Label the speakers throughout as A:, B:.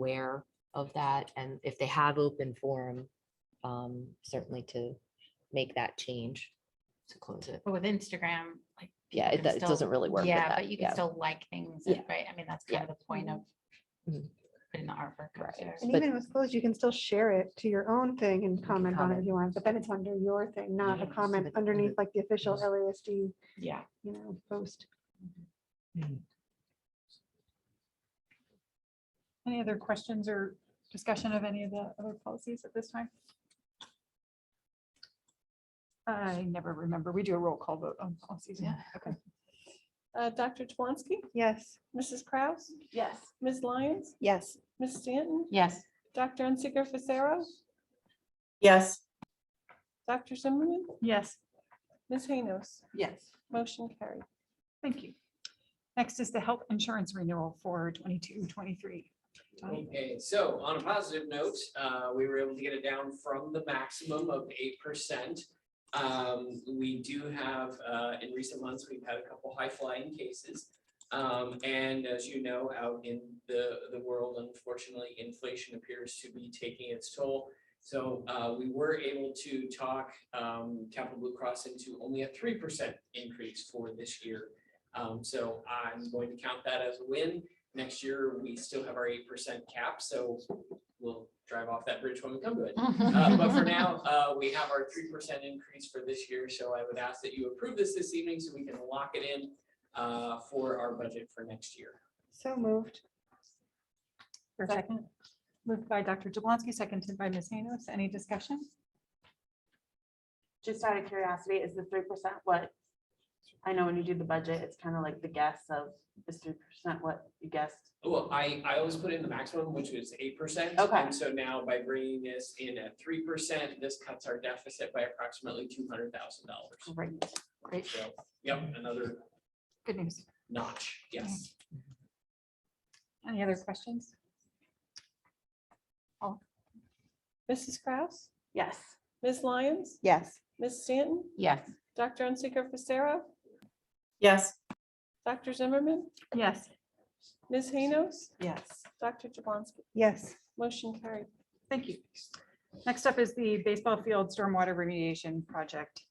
A: aware of that, and if they have open forum, um, certainly to make that change, to close it.
B: But with Instagram, like.
A: Yeah,
B: you
A: it
B: can
A: do- it
B: still-
A: doesn't really work with
B: Yeah,
A: that,
B: but you can
A: yeah.
B: still like things, and-
A: Yeah.
B: right? I mean, that's kind of the point of
A: Mhm.
B: putting the artwork up
A: Right.
B: there.
C: And
A: But-
C: even with closed, you can still share it to your own thing and comment on it if
A: comment.
C: you want, but then it's under your thing, not a
A: Yes,
C: comment
A: but-
C: underneath like the official
A: Yes.
C: LASD,
B: Yeah.
C: you know, post.
D: Any other questions or discussion of any of the other policies at this time? I never remember. We do a roll call vote on policies.
B: Yeah.
D: Okay.
E: Uh, Dr. Twonsky,
C: Yes.
E: Mrs. Kraus,
D: Yes.
E: Ms. Lyons,
C: Yes.
E: Ms. Stanton,
B: Yes.
E: Dr. Unsicker Fisera,
F: yes,
E: Dr. Zimmerman,
D: Yes.
E: Ms. Haynos,
D: Yes.
E: motion carried.
D: Thank you. Next is the health insurance renewal for 22, 23. Tony?
G: Okay, so on a positive note, uh, we were able to get it down from the maximum of eight percent. Um, we do have, uh, in recent months, we've had a couple high flying cases. Um, and as you know, out in the, the world, unfortunately, inflation appears to be taking its toll. So, uh, we were able to talk, um, Capital Blue Cross into only a three percent increase for this year. Um, so I'm going to count that as a win. Next year, we still have our eight percent cap, so we'll drive off that bridge when we come to it. Uh, But for now, uh, we have our three percent increase for this year, so I would ask that you approve this this evening so we can lock it in uh, for our budget for next year.
C: So moved.
D: For a second, moved by Dr. Jablonski, seconded by Ms. Haynos. Any discussion?
H: just out of curiosity, is the three percent what? I know when you do the budget, it's kind of like the guess of is three percent what you guessed.
G: Oh, Well, I, I always put in the maximum, which is eight percent.
H: Okay.
G: And so now by bringing this in at three percent, this cuts our deficit by approximately two hundred thousand dollars.
H: Right.
D: Oh, Great,
G: So, yep, another
D: good news.
G: notch, yes.
D: Any other questions?
E: Mrs. Kraus,
H: Yes.
E: Ms. Lyons,
C: Yes.
E: Ms. Stanton,
B: Yes.
E: Dr. Unsicker Fisera,
F: yes,
E: Dr. Zimmerman,
D: Yes.
E: Ms. Haynos,
B: Yes.
E: Dr. Jablonski,
C: Yes.
E: motion carried.
D: Thank you. Next up is the baseball field stormwater remediation project,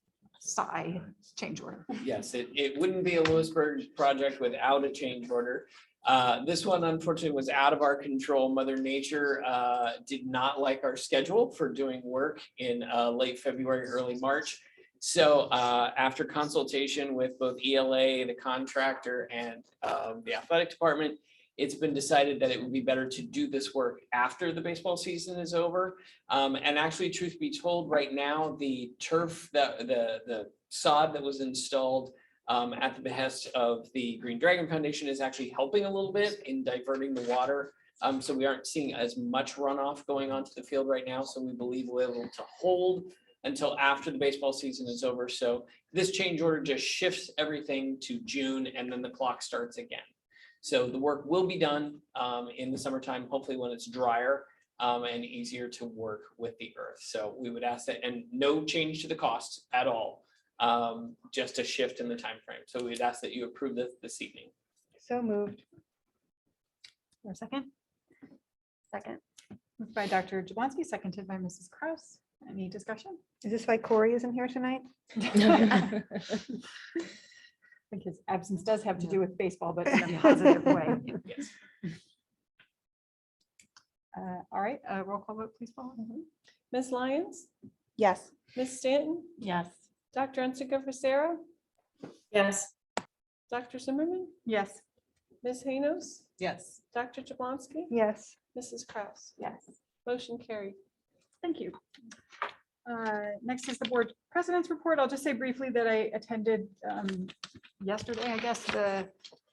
D: SI change order.
G: Yes, it, it wouldn't be a Lewisburg project without a change order. Uh, this one unfortunately was out of our control. Mother Nature, uh, did not like our schedule for doing work in, uh, late February, early March. So, uh, after consultation with both ELA, the contractor and, um, the athletic department, it's been decided that it would be better to do this work after the baseball season is over. Um, and actually, truth be told, right now, the turf, that the, the sod that was installed um, at the behest of the Green Dragon Foundation is actually helping a little bit in diverting the water. Um, so we aren't seeing as much runoff going onto the field right now, so we believe we're able to hold until after the baseball season is over. So this change order just shifts everything to June and then the clock starts again. So the work will be done, um, in the summertime, hopefully when it's drier um, and easier to work with the earth. So we would ask that, and no change to the cost at all, um, just a shift in the time frame. So we'd ask that you approve this this evening.
C: So moved.
D: For a second? Second. Moved by Dr. Jablonski, seconded by Mrs. Kraus. Any discussion?
C: Is this why Corey isn't here tonight?
D: I think his absence does have to do with baseball, but in a positive way.
G: Yes.
D: Uh, All right, uh, roll call vote, please, Paul.
E: Ms. Lyons,
C: Yes.
E: Ms. Stanton,
B: Yes.
E: Dr. Unsicker Fisera,
F: yes.
E: Dr. Zimmerman,
D: Yes.
E: Ms. Haynos,
B: Yes.
E: Dr. Jablonski,
C: Yes.
E: Mrs. Kraus,
B: Yes.
E: motion carried.
D: Thank you. Uh, Next is the board president's report. I'll just say briefly that I attended um, yesterday, I guess, the,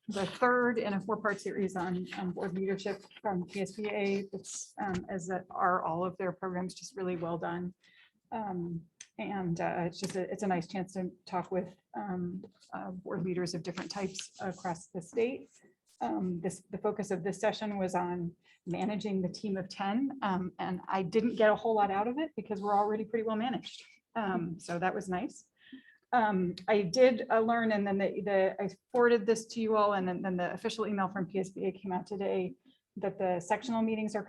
D: the third in a four-part series on, on board leadership from PSBA. It's, um, as that are all of their programs, just really well done. Um, And uh, it's just, a- it's a nice chance to talk with um, uh, board leaders of different types across the state. Um, This, the focus of this session was on managing the team of 10. um, And I didn't get a whole lot out of it because we're already pretty well managed. Um, So that was nice. Um, I did uh, learn and then the, the- I forwarded this to you all and then then the official email from PSBA came out today that the sectional meetings are